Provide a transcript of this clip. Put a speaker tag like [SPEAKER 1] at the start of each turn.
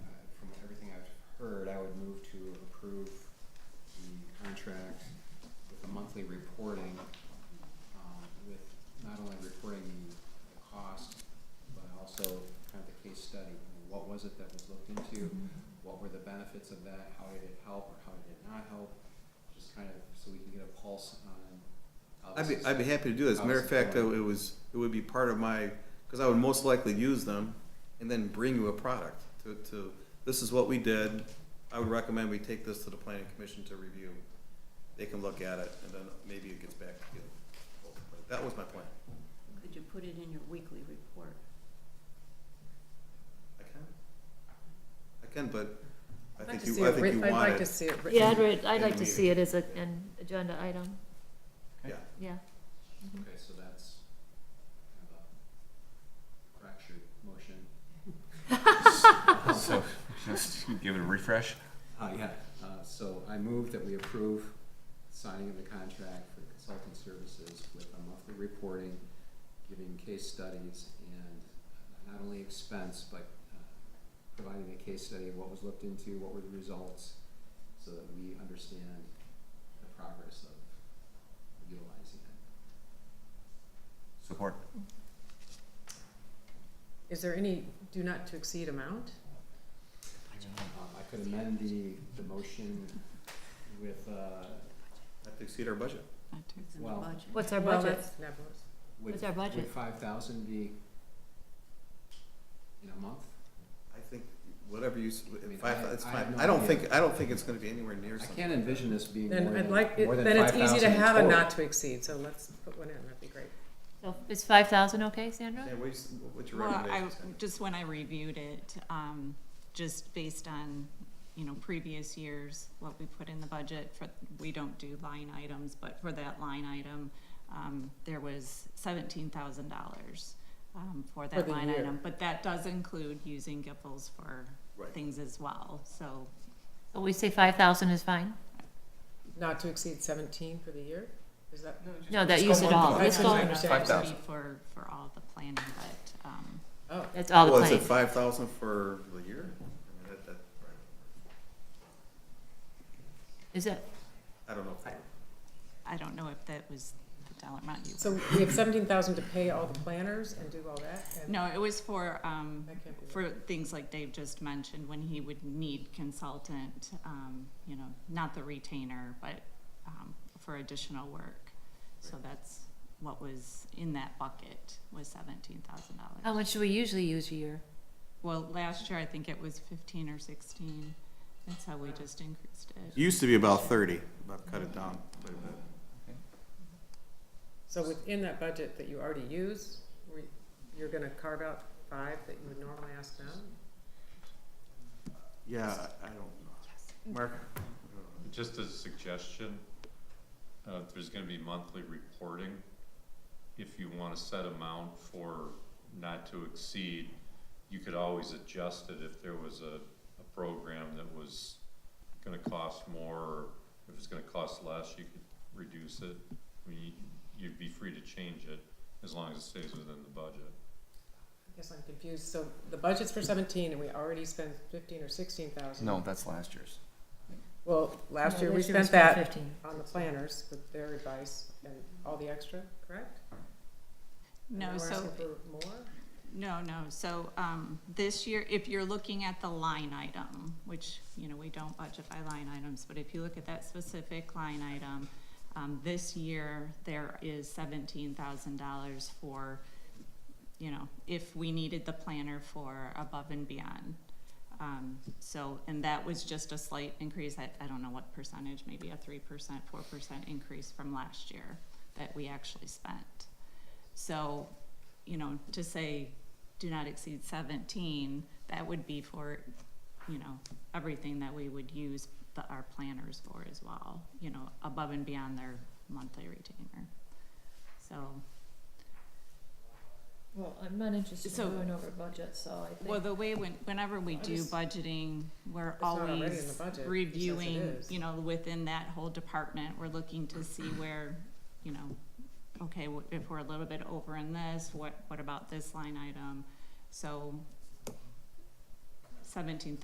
[SPEAKER 1] approve the contract with a monthly reporting, um, with not only reporting the the cost, but also kind of the case study. I mean, What was it that was looked into? What were the benefits of that? How did it help or how did it not help? Just kind of so we can get a pulse on how
[SPEAKER 2] I'd
[SPEAKER 1] this
[SPEAKER 2] be,
[SPEAKER 1] is-
[SPEAKER 2] I'd be happy to do this. Matter of fact, it was, it would be part of my, because I would most likely use them and then bring you a product to, to, this is what we did. I would recommend we take this to the planning commission to review. They can look at it and then maybe it gets back to you. That was my plan.
[SPEAKER 3] Could you put it in your weekly report?
[SPEAKER 2] I can? I can, but I
[SPEAKER 4] I'd like
[SPEAKER 2] think
[SPEAKER 4] to
[SPEAKER 2] you,
[SPEAKER 4] see
[SPEAKER 2] I
[SPEAKER 4] it
[SPEAKER 2] think you
[SPEAKER 4] writ- I'd
[SPEAKER 2] want
[SPEAKER 4] like to
[SPEAKER 2] it.
[SPEAKER 4] see it written.
[SPEAKER 5] Yeah, I'd, re- I'd
[SPEAKER 2] in
[SPEAKER 5] like
[SPEAKER 2] the
[SPEAKER 5] to see it
[SPEAKER 2] meeting.
[SPEAKER 5] as a, an agenda item,
[SPEAKER 2] Yeah,
[SPEAKER 5] yeah. Mhm.
[SPEAKER 1] Okay, so that's kind of a fractured motion.
[SPEAKER 6] So just give it a refresh.
[SPEAKER 1] Uh, yeah, uh, so I move that we approve signing of the contract for consulting services with a monthly reporting, giving case studies and uh, not only expense, but, uh, providing a case study of what was looked into, what were the results, so that we understand the progress of utilizing it.
[SPEAKER 6] Support.
[SPEAKER 4] Is there any do not to exceed amount?
[SPEAKER 1] Um, I could amend the, the motion with, uh,
[SPEAKER 2] have to exceed our budget.
[SPEAKER 3] It's in the
[SPEAKER 1] Well,
[SPEAKER 3] budget.
[SPEAKER 5] What's our
[SPEAKER 4] Well,
[SPEAKER 5] budget?
[SPEAKER 4] that's never,
[SPEAKER 1] would,
[SPEAKER 5] What's our budget?
[SPEAKER 1] would five thousand be in a month?
[SPEAKER 2] I think whatever you, s-
[SPEAKER 1] mean,
[SPEAKER 2] five,
[SPEAKER 1] I-
[SPEAKER 2] it's
[SPEAKER 1] I have
[SPEAKER 2] fine.
[SPEAKER 1] no
[SPEAKER 2] I don't
[SPEAKER 1] idea.
[SPEAKER 2] think, I don't think it's gonna be anywhere near
[SPEAKER 1] I
[SPEAKER 2] something.
[SPEAKER 1] can't envision this being more
[SPEAKER 4] then
[SPEAKER 1] than,
[SPEAKER 4] I'd like, it-
[SPEAKER 1] more than
[SPEAKER 4] then it's easy to
[SPEAKER 1] 5,000
[SPEAKER 4] have a
[SPEAKER 1] total.
[SPEAKER 4] not to exceed, so let's put one in, that'd be great.
[SPEAKER 5] So is five thousand okay, Sandra?
[SPEAKER 2] Yeah, what's, what's your
[SPEAKER 7] Well, I,
[SPEAKER 2] recommendation? Sandra?
[SPEAKER 7] just when I reviewed it, um, just based on, you know, previous years, what we put in the budget for, we don't do line items, but for that line item, um, there was seventeen thousand dollars, um, for
[SPEAKER 4] For
[SPEAKER 7] that
[SPEAKER 4] the
[SPEAKER 7] line
[SPEAKER 4] year.
[SPEAKER 7] item. But that does include using GIPLs for
[SPEAKER 2] Right.
[SPEAKER 7] things as well, so,
[SPEAKER 5] So we say five thousand is fine?
[SPEAKER 4] Not to exceed seventeen for the year, is that?
[SPEAKER 5] No, Oh, that
[SPEAKER 6] Just
[SPEAKER 5] use
[SPEAKER 6] go
[SPEAKER 5] it
[SPEAKER 6] month
[SPEAKER 5] all,
[SPEAKER 6] to
[SPEAKER 5] let's
[SPEAKER 4] That's what I
[SPEAKER 5] go,
[SPEAKER 4] understand.
[SPEAKER 6] Five thousand.
[SPEAKER 7] be for, for all the planning, but, um,
[SPEAKER 4] Oh,
[SPEAKER 5] that's all the
[SPEAKER 2] Well, is
[SPEAKER 5] plan.
[SPEAKER 2] it five thousand for the year? I mean, that, that,
[SPEAKER 5] Is it,
[SPEAKER 2] I don't know. if-
[SPEAKER 7] I don't know if that was the dollar amount you.
[SPEAKER 4] so we have seventeen thousand to pay all the planners and do all that? and-
[SPEAKER 7] No, it was for, um,
[SPEAKER 4] That can't be
[SPEAKER 7] for things like Dave just mentioned, when he would need consultant, um, you know, not the retainer, but, um, for additional work. So that's what was in that bucket, was seventeen thousand
[SPEAKER 5] how
[SPEAKER 7] dollars.
[SPEAKER 5] much do we usually use a year?
[SPEAKER 7] Well, last year, I think it was fifteen or sixteen, that's how we just increased
[SPEAKER 2] It
[SPEAKER 7] it.
[SPEAKER 2] Used to be about thirty, but I've cut it down quite a bit.
[SPEAKER 4] So within that budget that you already use, we- you're gonna carve out five that you would normally ask them?
[SPEAKER 2] Yeah, I I don't know. Mark?
[SPEAKER 8] Just as a suggestion, uh, there's gonna be monthly reporting. If you wanna set amount for not to exceed, you could always adjust it if there was a, a program that was gonna cost more, or if it's gonna cost less, you could reduce it. I mean, you'd be free to change it as long as it stays within the budget.
[SPEAKER 4] I guess I'm confused, so the budget's for seventeen and we already spent fifteen or sixteen thousand?
[SPEAKER 6] No, that's last year's.
[SPEAKER 4] Well, last
[SPEAKER 5] Yeah,
[SPEAKER 4] year we spent
[SPEAKER 5] spent
[SPEAKER 4] that
[SPEAKER 5] 15.
[SPEAKER 4] on the planners with their advice and all the extra, correct? And
[SPEAKER 7] No,
[SPEAKER 4] now we're
[SPEAKER 7] so
[SPEAKER 4] asking for more?
[SPEAKER 7] No, no, so, um, this year, if you're looking at the line item, which, you know, we don't budget by line items, but if you look at that specific line item, um, this year, there is seventeen thousand dollars for, you know, if we needed the planner for above and beyond. Um, so, and that was just a slight increase, I, I don't know what percentage, maybe a three percent, four percent increase from last year that we actually spent. So, you know, to say do not exceed seventeen, that would be for, you know, everything that we would use the, our planners for as well, you know, above and beyond their monthly retainer. So,
[SPEAKER 9] Well, I'm not interested
[SPEAKER 7] So-
[SPEAKER 9] in going over budget, so I
[SPEAKER 7] well,
[SPEAKER 9] think,
[SPEAKER 7] the way when, whenever we
[SPEAKER 4] I
[SPEAKER 7] do
[SPEAKER 4] just-
[SPEAKER 7] budgeting, we're
[SPEAKER 4] not already in the
[SPEAKER 7] always
[SPEAKER 4] budget, it says it
[SPEAKER 7] reviewing,
[SPEAKER 4] is.
[SPEAKER 7] you know, within that whole department, we're looking to see where, you know, okay, wh- if we're a little bit over in this, what, what about this line item? So seventeen